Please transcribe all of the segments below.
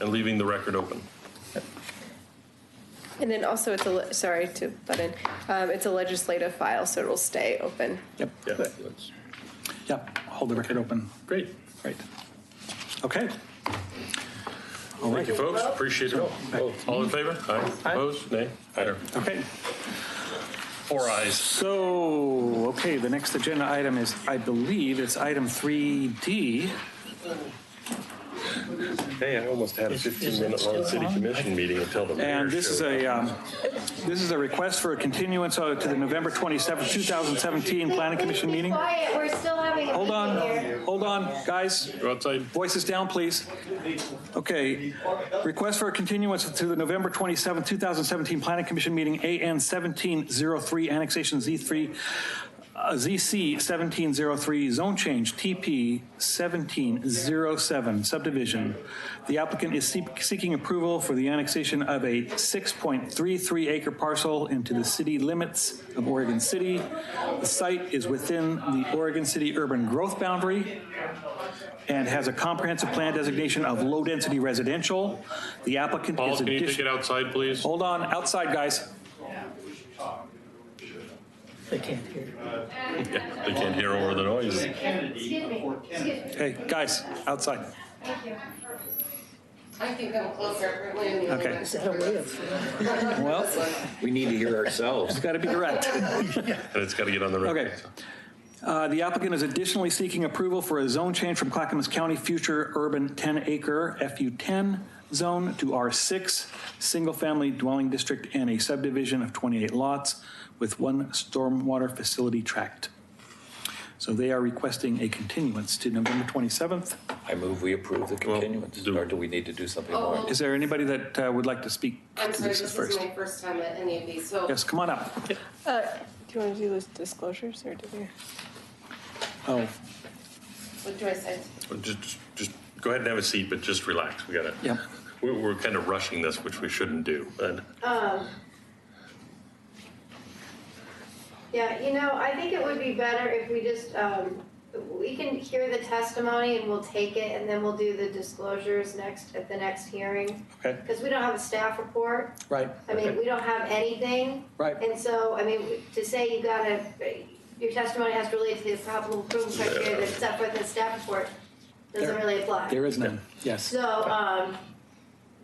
and leaving the record open. And then also, it's a, le- sorry to butt in, um, it's a legislative file, so it will stay open. Yep, Yeah, that's- yep, hold the record open. Great. Right. Okay. All Thank right, you, folks. Appreciate it all. All in favor? Aye. Aye. Opposed? Nay? Aye. okay. Four ayes. So, okay, the next agenda item is, I believe it's item 3D. Hey, I almost had a 15-minute-long city commission meeting until the mayor And this is showed a, um, this is a request for a continuance uh, to the November 27th, 2017 Planning Commission meeting. Quiet, we're still having a Hold meeting on, here. hold on, guys. Go outside. Voices down, please. Okay. Request for a continuance to the November 27, 2017 Planning Commission meeting, AN 1703, Annexation Z3, uh, ZC 1703, Zone Change, TP 1707, Subdivision. The applicant is seek- seeking approval for the annexation of a 6.33 acre parcel into the city limits of Oregon City. The site is within the Oregon City urban growth boundary and has a comprehensive plan designation of low-density residential. The applicant Paul, is can you take it addition. outside, please? Hold on, outside, guys. They can't hear. Yeah, They can't hear over the noise. Excuse me, excuse me, Hey, guys, outside. thank you. I can come closer. Wait a minute. Okay. Is that a way of, Well, We need to hear ourselves. it's got to be direct. And it's got to get on the record. Okay. Uh, The applicant is additionally seeking approval for a zone change from Clackamas County future urban 10-acre FU10 zone to R6, single-family dwelling district and a subdivision of 28 lots with one stormwater facility tract. So they are requesting a continuance to November 27th. I move we approve the continuance, do- or do we need to do something more? Is there anybody that uh, would like to speak to I'm sorry, this this is first? my first time at any of these, so. Yes, come on up. Uh, do you want to do those disclosures or do we? Oh, What do I say? Well, Just, just- just go ahead and have a seat, but just relax. We gotta, Yep. we're, we're kind of rushing this, which we shouldn't do. And Um, Yeah, you know, I think it would be better if we just, um, we can hear the testimony and we'll take it and then we'll do the disclosures next, at the next hearing. okay, Because we don't have a staff report, right, I mean, we don't have anything. right. And so, I mean, to say you gotta, your testimony has to relate to the probable approval criteria that's set forth in the staff report, doesn't There- really apply. There is none, yes. So, um,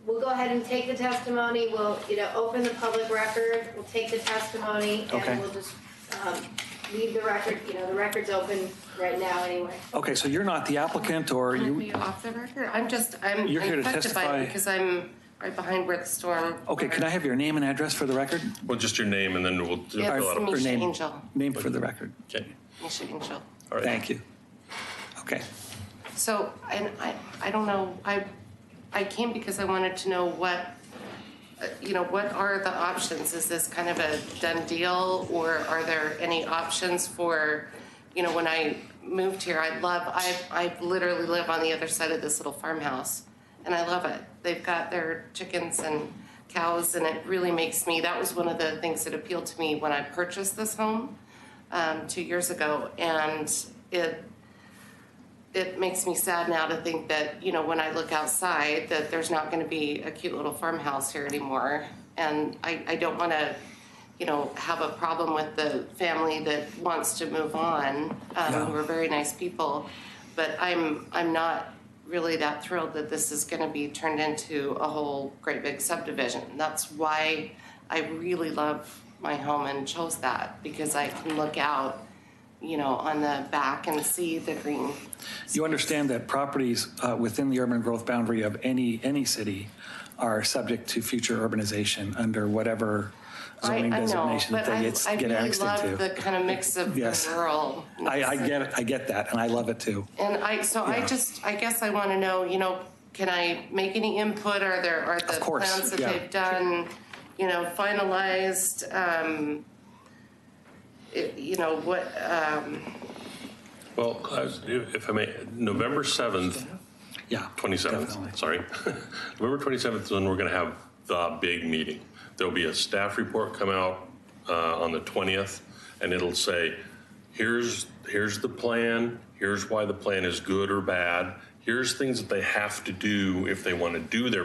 we'll go ahead and take the testimony, we'll, you know, open the public record, we'll take the testimony, Okay. and we'll just, um, leave the record, you know, the record's open right now anyway. Okay, so you're not the applicant, or Are you, you off the record? I'm just, I'm. You're here I'm to petrified testify. Because I'm right behind where the storm. okay, can I have your name and address for the record? well, just your name and then we'll we'll Yeah, fill out. it's a- Or Misha name- Angel. Name for the record. Okay. Misha Angel. All right. Thank you. Okay, So, and I, I don't know, I, I came because I wanted to know what, uh, you know, what are the options? Is this kind of a done deal, or are there any options for, you know, when I moved here, I love, I, I literally live on the other side of this little farmhouse, and I love it. They've got their chickens and cows, and it really makes me, that was one of the things that appealed to me when I purchased this home um, two years ago, and it, it makes me sad now to think that, you know, when I look outside, that there's not gonna be a cute little farmhouse here anymore. And I, I don't wanna, you know, have a problem with the family that wants to move on, um, who are very nice people. But I'm, I'm not really that thrilled that this is gonna be turned into a whole great big subdivision. That's why I really love my home and chose that, because I can look out, you know, on the back and see the green you understand that properties uh, within the urban growth boundary of any, any city are subject to future urbanization under whatever I, zoning I know, designation that but I, they gets- I get really annexed love the into. kind of mix of Yes. rural. I, I get, it. I get that, and I love it too. and I so I just I guess I want to know, you know, can I make any input? Are there are the Of course, plans that yeah. they've done, you know, finalized? Um, it, you know what? Um, Well, I- if I may, November 7th, Yeah. 27th, definitely. sorry. November 27th is when we're going to have the big meeting. There'll be a staff report come out uh, on the 20th, and it'll say, here's, here's the plan, here's why the plan is good or bad, here's things that they have to do if they want to do their